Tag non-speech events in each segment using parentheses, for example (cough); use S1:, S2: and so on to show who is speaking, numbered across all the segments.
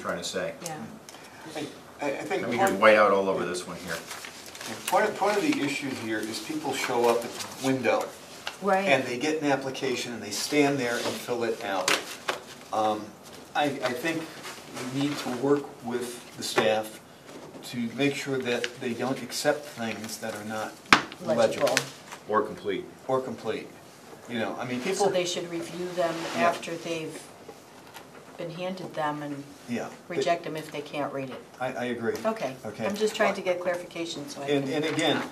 S1: trying to say.
S2: yeah.
S3: I, I I think
S1: Let me
S3: part,
S1: hear whiteout all over this one here.
S3: part of, part of the issue here is people show up at the window and
S2: Right,
S3: they get an application and they stand there and fill it out. Um, I, I think we need to work with the staff to make sure that they don't accept things that are not legible
S2: legible.
S1: Or complete.
S3: or complete. You know, I mean,
S2: So
S3: people,
S2: they should review them
S3: Yeah.
S2: after they've been handed them and
S3: yeah. they-
S2: reject them if they can't read it.
S3: I, I agree.
S2: Okay.
S3: Okay.
S2: I'm just trying to get clarification so I
S3: And, and
S2: can,
S3: again,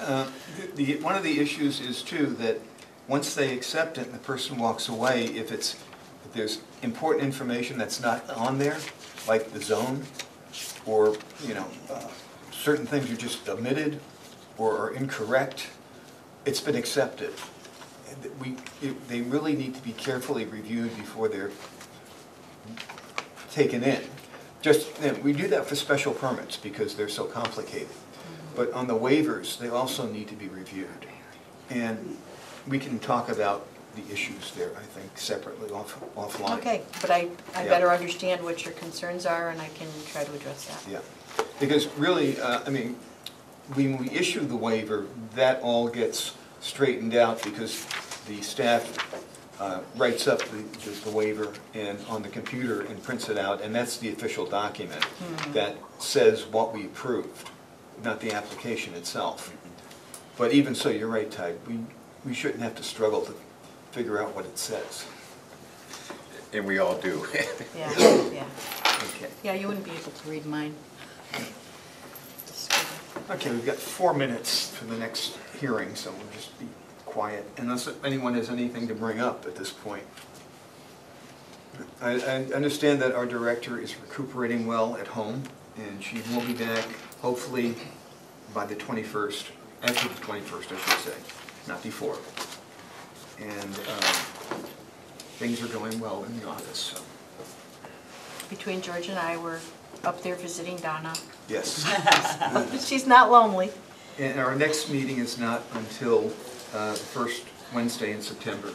S3: uh, the, one of the issues is too, that once they accept it and the person walks away, if it's, if there's important information that's not on there, like the zone, or, you know, uh, certain things are just omitted or are incorrect, it's been accepted. And that We, it- they really need to be carefully reviewed before they're taken in. Just, you know, we do that for special permits because they're so complicated. But on the waivers, they also need to be reviewed. And we can talk about the issues there, I think, separately off offline.
S2: okay, but I, I
S3: Yeah.
S2: better understand what your concerns are and I can try to address that.
S3: Yeah, because really, uh, I mean, when we issue the waiver, that all gets straightened out because the staff uh, writes up the- the the waiver and, on the computer and prints it out, and that's the official document that says what we approved, not the application itself. But even so, you're right, Ty, we, we shouldn't have to struggle to figure out what it says.
S1: And we all (laughs) do.
S2: Yeah,
S3: (coughs)
S2: yeah.
S3: Okay.
S2: Yeah, you wouldn't be able to read mine.
S3: Okay, we've got four minutes for the next hearing, so we'll just be quiet, unless anyone has anything to bring up at this point. I, I understand that our director is recuperating well at home, and she will be back hopefully by the 21st, after the 21st, I should say, not before. And um, things are going well in the office, so,
S2: Between George and I, we're up there visiting Donna.
S3: yes.
S2: She's not lonely.
S3: And our next meeting is not until uh, the first Wednesday in September.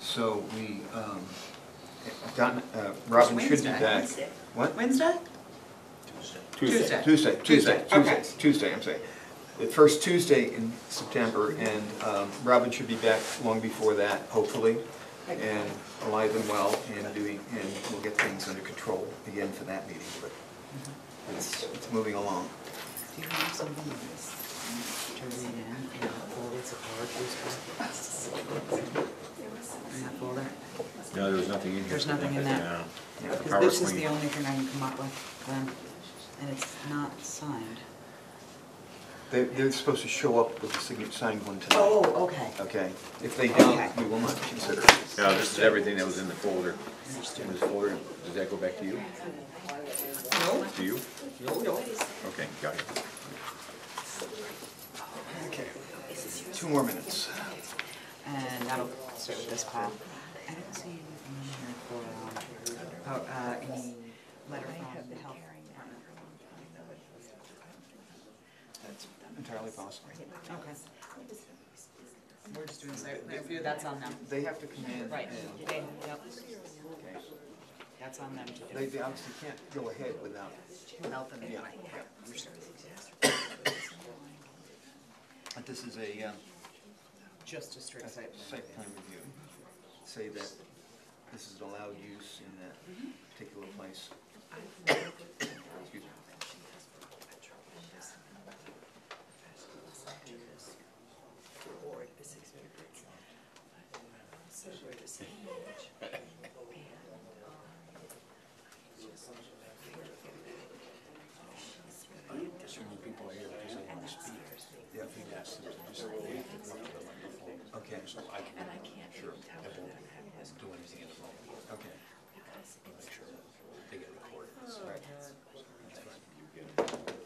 S3: So we, um, Don- uh, Robin should be
S4: Wednesday,
S3: back.
S4: Wednesday.
S3: What?
S4: Wednesday?
S3: Tuesday, Tuesday,
S4: Tuesday.
S3: Tuesday,
S4: Tuesday, okay.
S3: Tuesday, Tuesday, I'm saying. The first Tuesday in September, and um, Robin should be back long before that, hopefully, and alive and well, and doing, and we'll get things under control again for that meeting, but it's it's moving along.
S4: Do you have something like this? Turn it in and fold it to PowerPoint. In that folder.
S1: No, there was nothing in here.
S4: There's nothing in that.
S1: No.
S3: Yeah.
S4: Because this is the
S1: PowerPoint.
S4: only thing I can come up with, Glenn, and it's not signed.
S3: They- They're supposed to show up with a signature signed one tonight.
S4: Oh, okay.
S3: Okay, if they don't,
S4: Okay.
S3: we will not consider it.
S1: No, this is everything that was in the folder. In this folder, does that go back to you?
S4: No.
S1: To you? Okay, got it.
S3: Okay. Two more minutes.
S4: And that'll start with this pile. I don't see anything in here for, um, oh, uh, any letter from the health department.
S3: That's entirely possible.
S4: Okay. We're just doing site plan review, that's on them.
S3: They have to come in
S4: Right,
S3: and,
S4: they, yep,
S3: okay,
S4: that's on them to
S3: they
S4: do.
S3: they obviously can't go ahead without,
S4: Melt them anyway.
S3: but this is a uh,
S4: Just a
S3: a
S4: strict site plan.
S3: site plan review. Say that this is allowed use in that particular place. Excuse me. Yeah, we asked them to just- they have to work on it before. Okay. So I can. Sure. I won't do anything in the moment. Okay. Make sure they get recorded. Right. That's fine.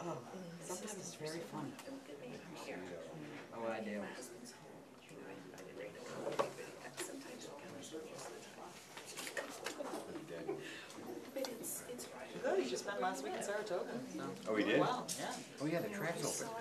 S4: Oh, that was just very fun. Oh, I do. Good, you just spent last week in Saratoga, so.
S1: Oh, we did?
S4: Wow, yeah.
S3: Oh, yeah, the track's open.